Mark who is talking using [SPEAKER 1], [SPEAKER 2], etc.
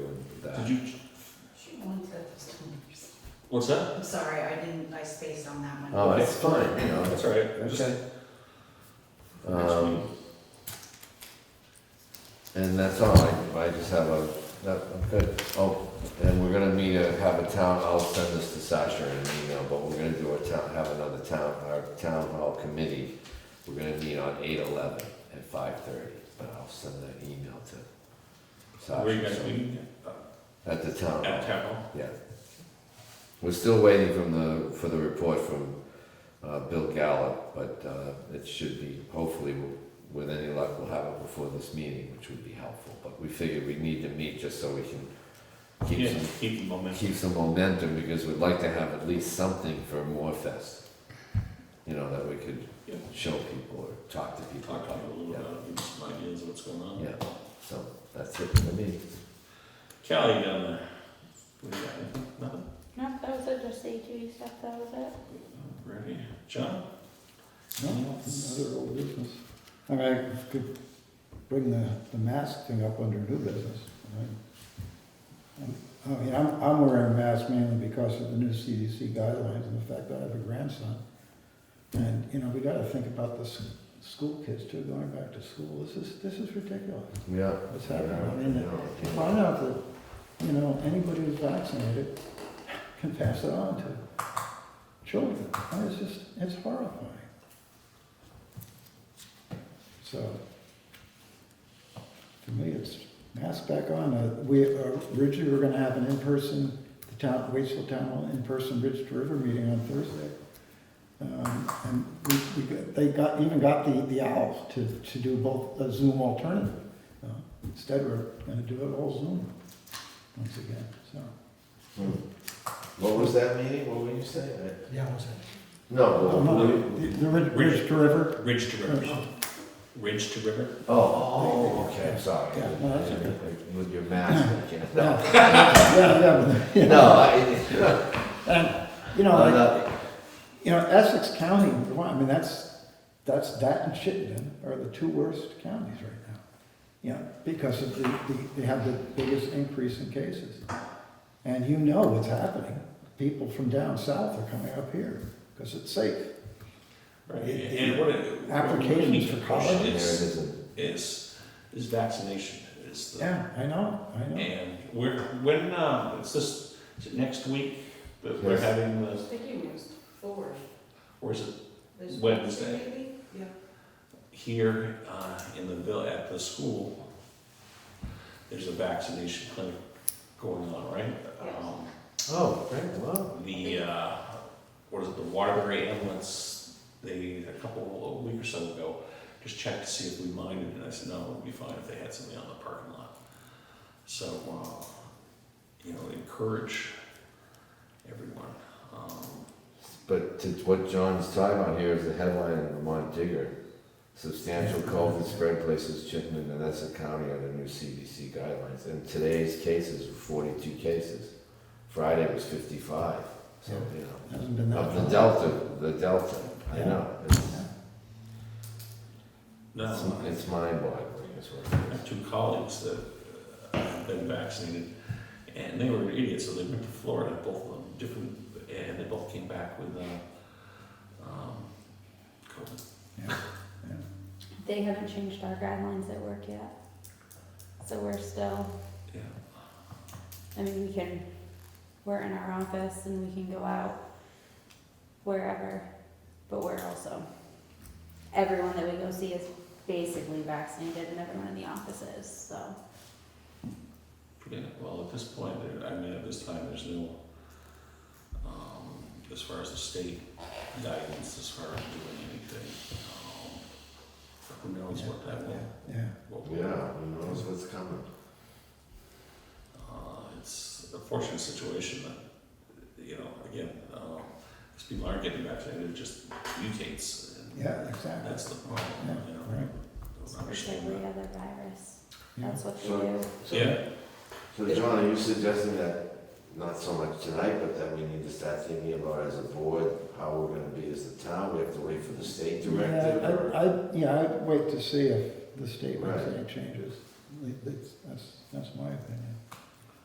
[SPEAKER 1] Did you,
[SPEAKER 2] She wants those.
[SPEAKER 1] what's that?
[SPEAKER 2] I'm sorry, I didn't, I spaced on that one.
[SPEAKER 3] Oh, that's fine, you know.
[SPEAKER 1] That's all right. I'm just-
[SPEAKER 3] Okay.
[SPEAKER 1] Next
[SPEAKER 3] Um, and that's all, I, I just have a, that, I'm good. Oh, and we're gonna meet, a- have a town, I'll send this to Sasha in an email, but we're gonna do a town, have another town, our town hall committee. We're gonna meet on eight eleven at five thirty, but I'll send that email to Sasha.
[SPEAKER 1] Where you guys
[SPEAKER 3] so-
[SPEAKER 1] meeting?
[SPEAKER 3] At the town hall.
[SPEAKER 1] At town hall?
[SPEAKER 3] Yeah. We're still waiting from the, for the report from uh, Bill Gallup, but uh, it should be, hopefully, we'll- with any luck, we'll have it before this meeting, which would be helpful. But we figured we need to meet just so we can keep
[SPEAKER 1] Yeah,
[SPEAKER 3] some,
[SPEAKER 1] keep the momentum.
[SPEAKER 3] keep some momentum, because we'd like to have at least something for Morfest. You know, that we could
[SPEAKER 1] Yeah.
[SPEAKER 3] show people or talk to people.
[SPEAKER 1] Talk to you a little
[SPEAKER 3] Yeah.
[SPEAKER 1] bit about, give you some ideas of what's going on.
[SPEAKER 3] Yeah, so that's it for me.
[SPEAKER 1] Callie down there. What do you got? Nothing?
[SPEAKER 4] No, that was it, just the ATV stuff, that was it.
[SPEAKER 1] Ready? John?
[SPEAKER 5] No, Another old business. I mean, I could bring the, the mask thing up under new business. right? I mean, I'm, I'm wearing a mask mainly because of the new CDC guidelines and the fact that I have a grandson. And, you know, we gotta think about the s- school kids too, going back to school. This is, this is ridiculous.
[SPEAKER 3] Yeah.
[SPEAKER 5] What's
[SPEAKER 3] Yeah,
[SPEAKER 5] happening?
[SPEAKER 3] yeah, yeah.
[SPEAKER 5] Find out that, you know, anybody who's vaccinated can pass it on to children. And it's just, it's horrifying. So, to me, it's mask back on. Uh, We, uh, originally, we we're gonna have an in-person, the town, Waitsville Town Hall, in-person Ridge to River meeting on Thursday. Um, And we, we, got- they got, even got the, the owl to, to do both a Zoom alternative. Uh, Instead, we're gonna do it all Zoom once again, so.
[SPEAKER 3] Hmm. What was that meeting? What were you saying? I-
[SPEAKER 5] Yeah, was it?
[SPEAKER 3] No, well,
[SPEAKER 5] The,
[SPEAKER 3] we-
[SPEAKER 5] the Ridge, Ridge to River.
[SPEAKER 1] Ridge to river. Ridge to river?
[SPEAKER 3] oh, oh, okay, I'm sorry.
[SPEAKER 5] Yeah, no, that's okay.
[SPEAKER 3] With your mask, I can't. No,
[SPEAKER 5] Yeah, yeah, yeah, but-
[SPEAKER 3] no, I,
[SPEAKER 5] And, you know,
[SPEAKER 3] I'm
[SPEAKER 5] like,
[SPEAKER 3] not,
[SPEAKER 5] you know, Essex County, I mean, that's, that's, that and Chittenden are the two worst counties right now. You know, because of the, the, they have the biggest increase in cases. And you know what's happening. People from down south are coming up here because it's safe.
[SPEAKER 1] Right.
[SPEAKER 5] The- the
[SPEAKER 1] And what it.
[SPEAKER 5] applications for college.
[SPEAKER 3] there it
[SPEAKER 1] Is,
[SPEAKER 3] isn't.
[SPEAKER 1] is, is vaccination is the.
[SPEAKER 5] Yeah, I know, I know.
[SPEAKER 1] And we're, when, um, it's this, is it next week that we're
[SPEAKER 3] Yes.
[SPEAKER 1] having the,
[SPEAKER 2] Sticking was four.
[SPEAKER 1] or is it
[SPEAKER 2] There's-
[SPEAKER 1] Wednesday.
[SPEAKER 2] Maybe? Yeah.
[SPEAKER 1] here, uh, in the bill, at the school? There's a vaccination clinic going on, right?
[SPEAKER 2] Yes.
[SPEAKER 1] Um,
[SPEAKER 3] Oh, great, well,
[SPEAKER 1] The, uh, what is it, the Waterbury ambulance, they, a couple, a week or so ago, just checked to see if we minded, and I said, no, it'd be fine if they had something on the parking lot. So, uh, you know, encourage everyone. Um,
[SPEAKER 3] but to what John's talking about here is the headline in Vermont Digger. Substantial COVID spread places Chittenden and Essex County under new CDC guidelines. And today's cases were forty-two cases. Friday was fifty-five, so, you know.
[SPEAKER 5] Hasn't been that
[SPEAKER 3] Of the
[SPEAKER 5] long.
[SPEAKER 3] delta, the delta, I
[SPEAKER 5] Yeah.
[SPEAKER 3] know. It's-
[SPEAKER 1] No, I-
[SPEAKER 3] It's mind-boggling, is what it
[SPEAKER 1] I
[SPEAKER 3] is.
[SPEAKER 1] have two colleagues that uh, have been vaccinated, and they were idiots, so they went to Florida, both of them, different, and they both came back with, uh, um, COVID.
[SPEAKER 4] They haven't changed our guidelines at work yet. So we're still,
[SPEAKER 1] Yeah,
[SPEAKER 4] I mean, we can, we're in our office and we can go out wherever, but we're also, everyone that we go see is basically vaccinated and everyone in the office is, so.
[SPEAKER 1] pretty, well, at this point, there, I mean, at this time, there's no, um, as far as the state guidance, as far as doing anything, um, who knows what that will,
[SPEAKER 5] Yeah,
[SPEAKER 1] what will.
[SPEAKER 3] Yeah, who knows what's coming?
[SPEAKER 1] Uh, it's a fortunate situation that, you know, again, because people aren't getting vaccinated, it just mutates. And
[SPEAKER 5] yeah, exactly.
[SPEAKER 1] That's the problem,
[SPEAKER 5] Yeah,
[SPEAKER 1] you know.
[SPEAKER 5] right.
[SPEAKER 1] Don't
[SPEAKER 4] It's like
[SPEAKER 1] understand
[SPEAKER 4] every
[SPEAKER 1] that.
[SPEAKER 4] other virus,
[SPEAKER 5] Yeah.
[SPEAKER 4] that's what they
[SPEAKER 3] So-
[SPEAKER 4] do.
[SPEAKER 5] So-
[SPEAKER 1] Yeah,
[SPEAKER 3] So John, are you suggesting that, not so much tonight, but that we need to start thinking about as a board, how we're gonna be as a town? We have to wait for the state directive?
[SPEAKER 5] Yeah,
[SPEAKER 3] or-
[SPEAKER 5] I, I, yeah, I'd wait to see if the state makes
[SPEAKER 3] Right.
[SPEAKER 5] any changes. That's, that's, that's my opinion.